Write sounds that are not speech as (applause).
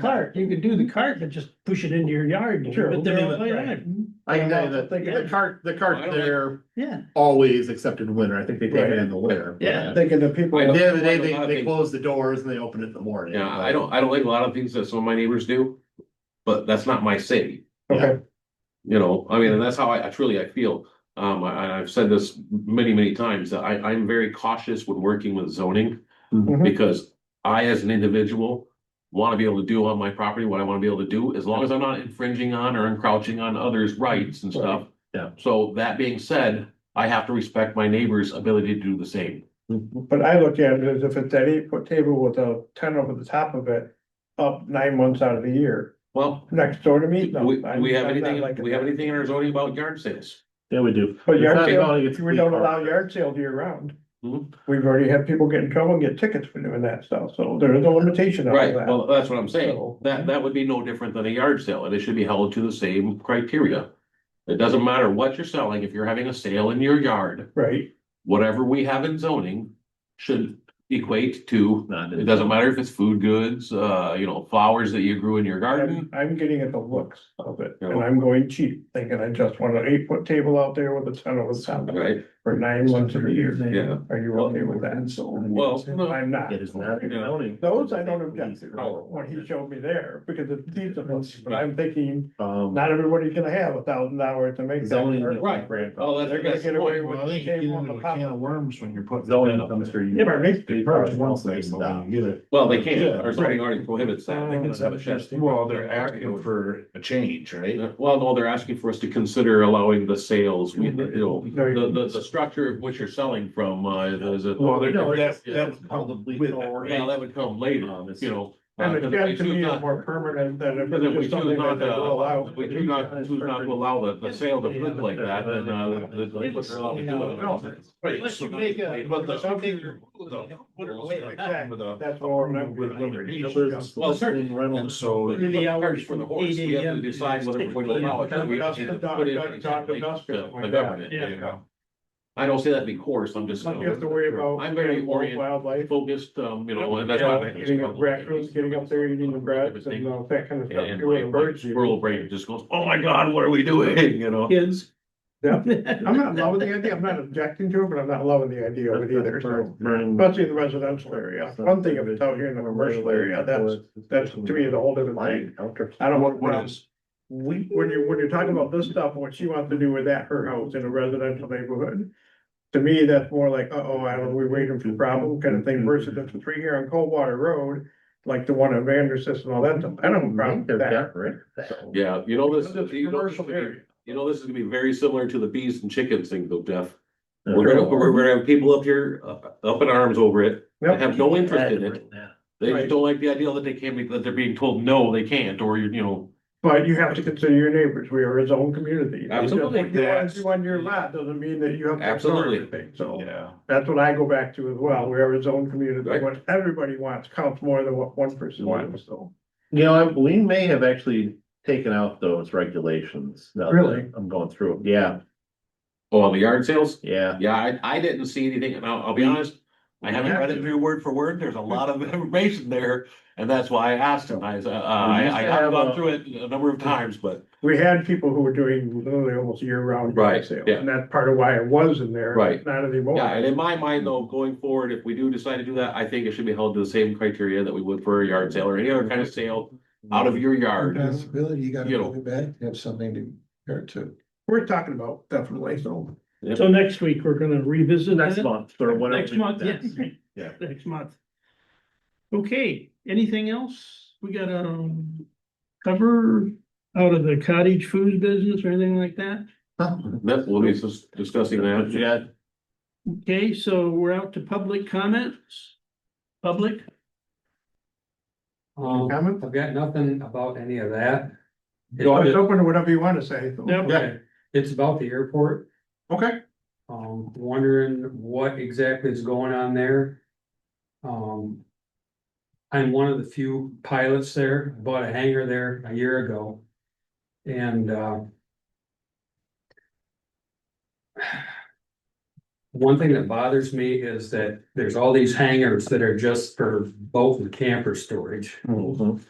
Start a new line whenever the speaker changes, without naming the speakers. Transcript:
cart, you could do the cart, but just push it into your yard. and
Sure,
put them in the
right.
yard.
I can tell you that
Yeah.
uh, the cart, the cart there
Yeah,
always accepted winter. I think they take it in the winter.
Yeah.
Thinking the people.
At
Wait,
the end of the day,
A lot of
they, they
things-
close the doors and they open it in the morning.
Yeah, I don't, I don't like a lot of things that some of my neighbors do, but that's not my city.
Okay.
You know, I mean, and that's how I, I truly, I feel. Um, I, and I've said this many, many times, that I, I'm very cautious when working with zoning.
Mhm.
Because I, as an individual, want to be able to do on my property what I want to be able to do, as long as I'm not infringing on or encroaching on others' rights and stuff.
Yeah.
So that being said, I have to respect my neighbor's ability to do the same.
But I look at it as if it's that eight foot table with a tent over the top of it, up nine months out of the year,
Well,
next door to me.
do
no,
we,
I'm-
we have
I'm not
anything,
like
we have
that.
anything in our zoning about yard sales?
Yeah, we do.
But
It's
yard
not
sale,
about it's
We
the
don't
cart.
allow yard sales year round.
Mhm.
We've already had people get in trouble and get tickets for doing that stuff, so there is no limitation on
Right,
that.
well, that's what I'm saying.
So-
That, that would be no different than a yard sale, and it should be held to the same criteria. It doesn't matter what you're selling, if you're having a sale in your yard,
Right,
whatever we have in zoning should equate to,
Not
it
in-
doesn't matter if it's food goods, uh, you know, flowers that you grew in your garden.
I'm, I'm getting at the looks of it, and
Yeah.
I'm going cheap, thinking I just want an eight foot table out there with a tent over the top of it
Right,
for nine months of the year.
yeah.
Are you okay with that?
Well, no.
I'm not.
It is not in zoning. Oh.
Those I don't object to, what he showed me there, because it's decent, but I'm thinking,
Um,
not everybody's gonna have a thousand dollars to make
zoning.
that.
Right. Oh, that's,
They're gonna
that's
get
the
away
point.
with shame on the pop.
worms when you're putting.
Zoning comes through.
Yeah, but it
They
makes.
probably won't say it's not.
Well, they can't,
Yeah,
our zoning already prohibits that. They can't have a shed.
Well, they're asking for a change, right?
Well, no, they're asking for us to consider allowing the sales, we, you know,
Mm-hmm. Very-
the, the, the structure of which you're selling from, uh, is a.
Well, they're-
No, it's-
that- that would come
probably
with-
already-
Yeah, that would come later,
Um,
you know.
And
uh,
it's
'cause
got
we
to
choose
be
not-
more permanent than if
Because if
it's
we
just something
choose
that
not
they
to,
will allow.
allow- we choose not, choose not to allow the, the sale to flip like that, then, uh, the. the-
It's-
they're allowed to do it. Right,
Unless you
so-
make a-
But the-
something you're- put it away like that.
With a-
That's all I'm remembering.
Well, certainly. (laughs)
And so,
Through the hours
For the horse,
from
we
8
have to decide whether we're going to allow it. We have to put it in the- uh, the government,
Yeah.
you know. I don't say that to be coarse, I'm just.
Like you have to worry about.
I'm very
animals,
oriented.
Wildlife.
focused, um, you know, and that's why. I
Yeah,
think it's
Getting up
probably-
raccoons, getting up there, eating the grass and
Everything.
all that kind of stuff.
And
You're with the
my- my
birds, you-
squirrel brain just goes, oh my God, what are we doing, (laughs) you know?
kids.
Yeah. I'm not loving the idea, I'm not objecting to it, but I'm not loving the idea of it either, so.
Burning-
Especially in the residential area, one thing if it's out here in the commercial area, that's, that's to me is a whole different thing. I don't want,
What
when
is,
when you're, when you're talking about this stuff, what she wants to do with that, her house in a residential neighborhood. To me, that's more like, uh-oh, I don't, we're waiting for a problem kind of thing versus if it's right here on Coldwater Road. Like the one on Vanderstis and all that, stuff. I don't have a problem with that.
yeah, you know, this,
Because it's a
you know, this is
commercial
gonna be-
area.
you know, this is gonna be very similar to the bees and chickens thing though, Jeff. We're gonna, we're gonna have people up here, uh, up in arms over it, that have no interest in it. They
Right.
just don't like the idea that they can't be, that they're being told, no, they can't, or, you know.
But you have to consider your neighbors, we are his own community.
Absolutely.
What you want to do on your lot doesn't mean that you have. to ignore
Absolutely.
everything. So
yeah,
that's what I go back to as well, we are his own community,
Right.
what everybody wants counts more than what one person wants, so.
You know, I- we may have actually taken out those regulations. now that
Really?
I'm going through, it. yeah,
Oh, on the yard sales?
yeah.
Yeah, I, I didn't see anything, and I'll, I'll be honest, I haven't read it through word for word, there's a lot of (laughs) information there, and that's why I asked him, I, uh, I, I have gone through it a number of times, but.
We had people who were doing literally almost year round.
Right,
sales,
yeah.
And that's part of why it was in there.
Right.
Not anymore.
Yeah, and in my mind
Hmm.
though, going forward, if we do decide to do that, I think it should be held to the same criteria that we would for a yard sale or any other kind of sale out of your yard.
Possibility, you gotta
You know.
bring it back, have something to, compare it to.
We're talking about definitely, so.
So next week, we're gonna revisit
Next
that,
month or whatever.
next month, yeah,
Yeah.
(laughs) next month. Okay, anything else we gotta um, cover out of the cottage food business or anything like that?
That, we'll be dis- discussing
But you
that.
got
Okay, so we're out to public comments. Public,
Um,
Comment?
I've got nothing about any of that.
It's
It's-
open to whatever you want to say. so.
Yep.
Okay, it's about the airport,
Okay,
um, wondering what exactly is going on there. Um. I'm one of the few pilots there, I bought a hangar there a year ago. And, uh. One thing that bothers me is that there's all these hangars that are just for boat and camper storage.
Mm-hmm.
Mhm.